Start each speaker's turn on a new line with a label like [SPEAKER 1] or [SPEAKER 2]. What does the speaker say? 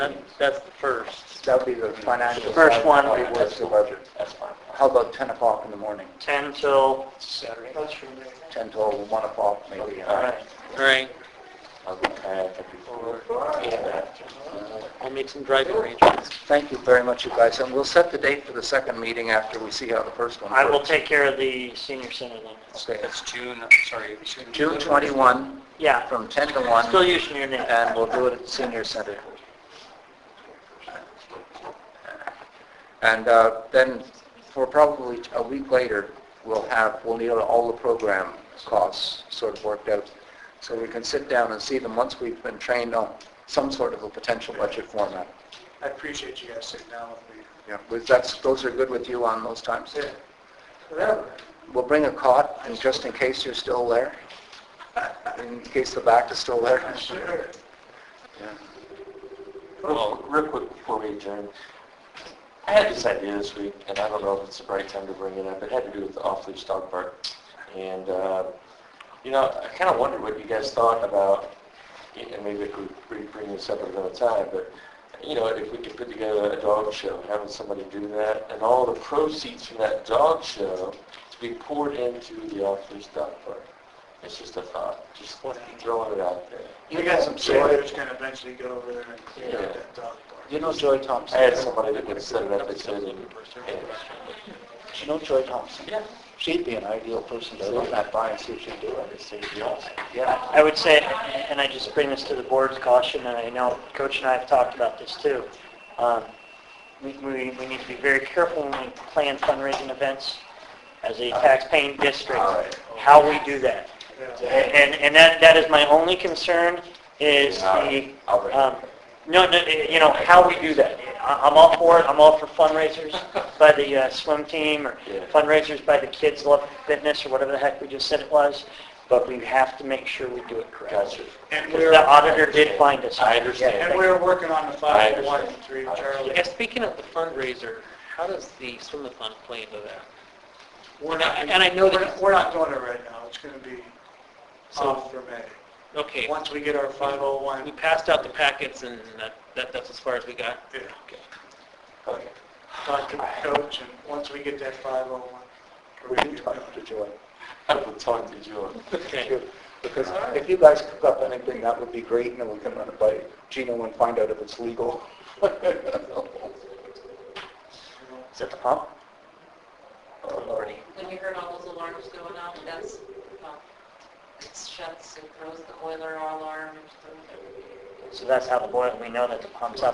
[SPEAKER 1] That- That's the first.
[SPEAKER 2] That would be the financial.
[SPEAKER 1] First
[SPEAKER 2] side.
[SPEAKER 1] one.
[SPEAKER 2] That's the budget.
[SPEAKER 1] That's fine.
[SPEAKER 2] How about 10 o'clock in the morning?
[SPEAKER 1] 10 till,
[SPEAKER 3] Saturday.
[SPEAKER 2] 10 till 1 o'clock maybe.
[SPEAKER 1] all right, all right.
[SPEAKER 2] I'll be tired of people.
[SPEAKER 1] I'll make some driving arrangements.
[SPEAKER 2] Thank you very much, you guys, and we'll set the date for the second meeting after we see how the first one goes.
[SPEAKER 1] I will take care of the senior center then.
[SPEAKER 2] Okay,
[SPEAKER 3] That's June, sorry.
[SPEAKER 2] June 21,
[SPEAKER 1] Yeah,
[SPEAKER 2] from 10 to
[SPEAKER 1] still
[SPEAKER 2] 1,
[SPEAKER 1] using your name.
[SPEAKER 2] and we'll do it at Senior Center. And uh, then, for probably a week later, we'll have, we'll need all the program costs sort of worked out, so we can sit down and see them once we've been trained on some sort of a potential budget format.
[SPEAKER 3] I appreciate you guys sitting down with me.
[SPEAKER 2] Yeah, was- that's, those are good with you on those times?
[SPEAKER 3] Yeah. Whatever.
[SPEAKER 2] We'll bring a cot, and just in case you're still there, in case the back is still there.
[SPEAKER 3] Sure.
[SPEAKER 2] Yeah.
[SPEAKER 4] Well, real quick before we adjourn, I had this idea this week, and I don't know if it's the right time to bring it up. It had to do with the off-leash dog park. And, uh, you know, I kind of wondered what you guys thought about, and maybe if we bring- bring this up at another time, but, you know, if we could put together a dog show, having somebody do that, and all the proceeds from that dog show to be poured into the off-leash dog park. It's just a thought, just throwing it out there.
[SPEAKER 3] You got some sailors gonna eventually go over there and clean out that dog park.
[SPEAKER 2] You know Joy
[SPEAKER 4] I
[SPEAKER 2] Thompson?
[SPEAKER 4] had somebody that would set it up, they said, and, and
[SPEAKER 2] You know Joy Thompson?
[SPEAKER 4] Yeah.
[SPEAKER 2] She'd be an ideal person to run that by and see if she'd do it. Yeah.
[SPEAKER 1] I would say, and I just bring this to the board's caution, and I know Coach and I have talked about this too. Um, We, we, we need to be very careful when we plan fundraising events as a taxpaying district, how we do that. And, and that, that is my only concern is the, um, no, no, you know, how we do that. I- I'm all for it, I'm all for fundraisers by the uh, swim team or
[SPEAKER 4] Yeah.
[SPEAKER 1] fundraisers by the Kids Love Fitness or whatever the heck we just said it was, but we have to make sure we do it correctly.
[SPEAKER 4] Gotcha.
[SPEAKER 3] And
[SPEAKER 1] Because
[SPEAKER 3] we're,
[SPEAKER 1] the auditor did find us.
[SPEAKER 4] I understand.
[SPEAKER 3] and we're working on the
[SPEAKER 4] I
[SPEAKER 3] five, one,
[SPEAKER 4] understand.
[SPEAKER 3] three,
[SPEAKER 4] I
[SPEAKER 3] Charlie.
[SPEAKER 5] Yeah, speaking of the fundraiser, how does the swim-a-thon play into that?
[SPEAKER 3] We're not,
[SPEAKER 5] And I know that-
[SPEAKER 3] we're not- we're not doing it right now. It's gonna be off for May.
[SPEAKER 5] Okay,
[SPEAKER 3] Once we get our five oh one.
[SPEAKER 5] we passed out the packets and that, that, that's as far as we got.
[SPEAKER 3] Yeah.
[SPEAKER 5] Okay.
[SPEAKER 3] Talk to the coach, and once we get that 501, we're
[SPEAKER 2] We
[SPEAKER 3] going
[SPEAKER 2] do
[SPEAKER 3] to
[SPEAKER 2] talk to Joy.
[SPEAKER 4] I will talk to Joe.
[SPEAKER 5] Okay,
[SPEAKER 2] Because if you guys cook up anything, that would be great, and then we can run it by Gino and find out if it's legal. Is it the pump?
[SPEAKER 4] Oh,
[SPEAKER 6] When we heard all those alarms going off, that's, well, it shuts and throws the boiler alarm.
[SPEAKER 1] So that's how the boiler, we know that the pump's up.